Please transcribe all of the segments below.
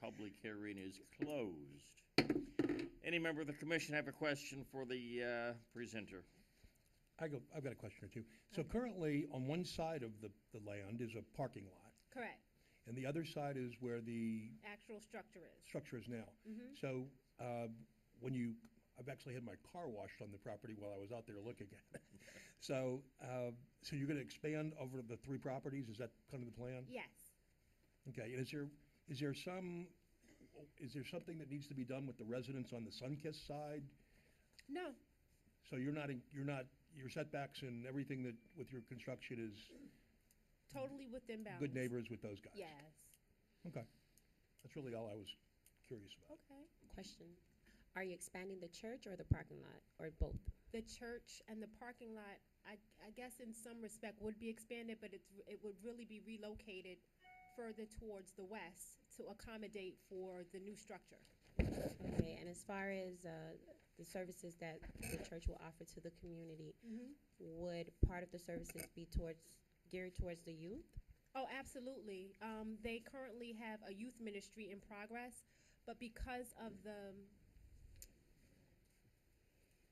Public hearing is closed. Any member of the commission have a question for the uh, presenter? I go, I've got a question or two. So currently, on one side of the, the land is a parking lot, Correct, and the other side is where the actual structure is. Mm-hmm. structure is now. So, uh, when you, I've actually had my car washed on the property while I was out there looking at it. So, uh, so you're gonna expand over the three properties, is that kind of the plan? Yes, Okay, and is there, is there some, is there something that needs to be done with the residents on the Sunkist side? no, So you're not, in- you're not, your setbacks and everything that, with your construction is totally within bounds. good neighbors with those guys? Yes, Okay, that's really all I was curious about. okay. Question, are you expanding the church or the parking lot, or both? The church and the parking lot, I, I guess in some respect would be expanded, but it's, it would really be relocated further towards the west to accommodate for the new structure. Okay, and as far as, uh, the services that the church will offer to the community, would part of the services be towards, geared towards the youth? Oh, absolutely. Um, they currently have a youth ministry in progress, but because of the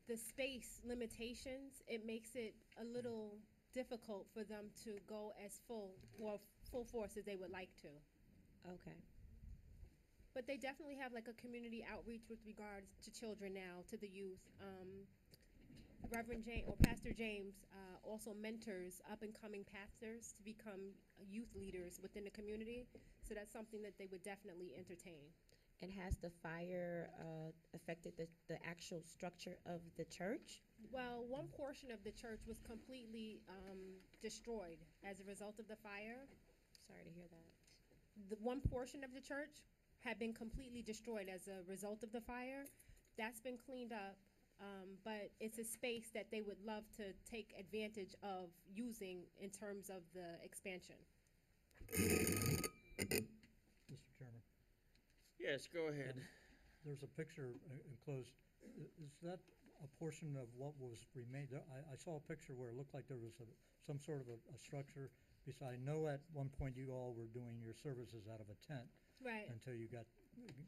the space limitations, it makes it a little difficult for them to go as full or full force as they would like to. Okay, But they definitely have like a community outreach with regards to children now, to the youth. Um, Reverend James or Pastor James uh, also mentors up and coming pastors to become youth leaders within the community. So that's something that they would definitely entertain. and has the fire, uh, affected the, the actual structure of the church? Well, one portion of the church was completely um, destroyed as a result of the fire. Sorry to hear that. the one portion of the church had been completely destroyed as a result of the fire. That's been cleaned up, um, but it's a space that they would love to take advantage of using in terms of the expansion. Mr. Chairman, Yes, go ahead. there's a picture uh, enclosed. I- Is that a portion of what was remained? There- I, I saw a picture where it looked like there was a, some sort of a, a structure. Because I know at one point you all were doing your services out of a tent Right. until you got,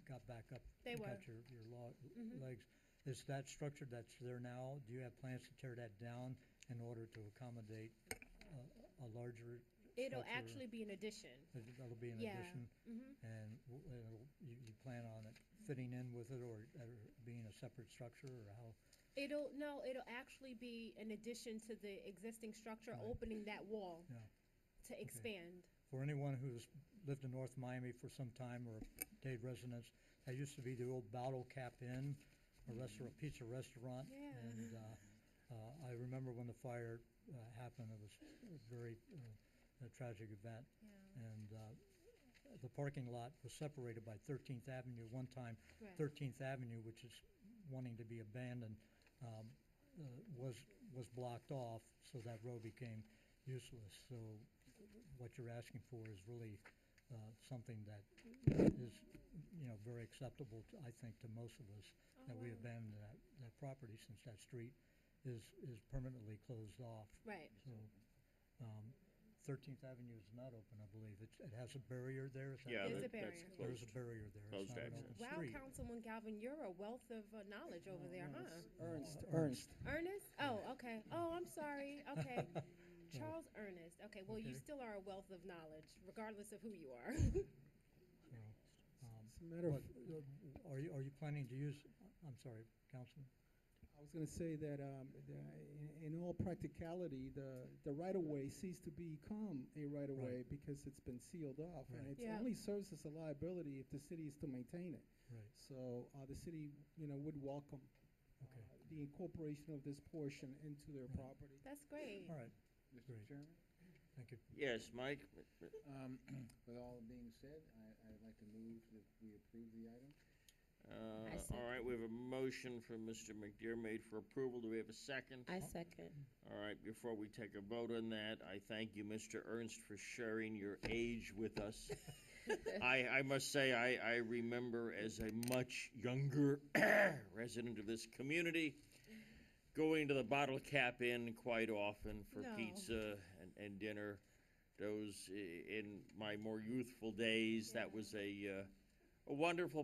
got back up. They you were. Mm-hmm. Got your, your lo- legs. Is that structure that's there now, do you have plans to tear that down in order to accommodate a, a larger It'll structure? actually be an addition. That- That'll be an Yeah. addition? Mhm. And w- it'll- you, you plan on it fitting in with it or or being a separate structure or how? It'll, no, it'll actually be an addition to the existing structure, Right. opening that wall Yeah. to expand. For anyone who's lived in North Miami for some time or stayed residence, that used to be the old Bottle Cap Inn, a restaurant, pizza restaurant. Yeah. And uh, uh, I remember when the fire uh, happened, it was a very uh, a tragic event. And uh, the parking lot was separated by 13th Avenue one time. Right. 13th Avenue, which is wanting to be abandoned, um, uh, was, was blocked off, so that road became useless. So what you're asking for is really uh, something that is, you know, very acceptable, to- I think, to most of us, that we abandoned that, that property since that street is, is permanently closed off. Right. So, um, 13th Avenue is not open, I believe. It's, it has a barrier there, is that? Yeah, There's a correct? that- that's closed. barrier. There's a barrier there. Closed It's not an access. open Wow, street. Councilwoman Galvin, you're a wealth of uh, knowledge over there, huh? Ernst, Uh, Ernst. Ernest? Oh, okay. Oh, I'm sorry. Okay. Charles Ernest. Okay, well, you Okay. still are a wealth of knowledge, regardless of who you are. So, um, As a matter of, But, uh, are you, are you planning to use, I'm sorry, Councilman? I was gonna say that, um, the, in, in all practicality, the, the right-of-way ceased to become a right-of-way Right. because it's been sealed off. And Right. it Yeah. only serves as a liability if the city is to maintain it. Right. So, uh, the city, you know, would welcome, uh, Okay. the incorporation of this portion into their Right. property. That's great. All right, Mr. Great. Chairman, thank you. Yes, Mike? um, with all being said, I, I'd like to move that we approve the item. Uh, All I right, second. we have a motion from Mr. McDermott for approval. Do we have a second? I second. All right, before we take a vote on that, I thank you, Mr. Ernst, for sharing your age with us. I, I must say, I, I remember as a much younger resident of this community, going to the Bottle Cap Inn quite often for No. pizza and, and dinner. Those, i- in my more youthful days, that was a, uh, a wonderful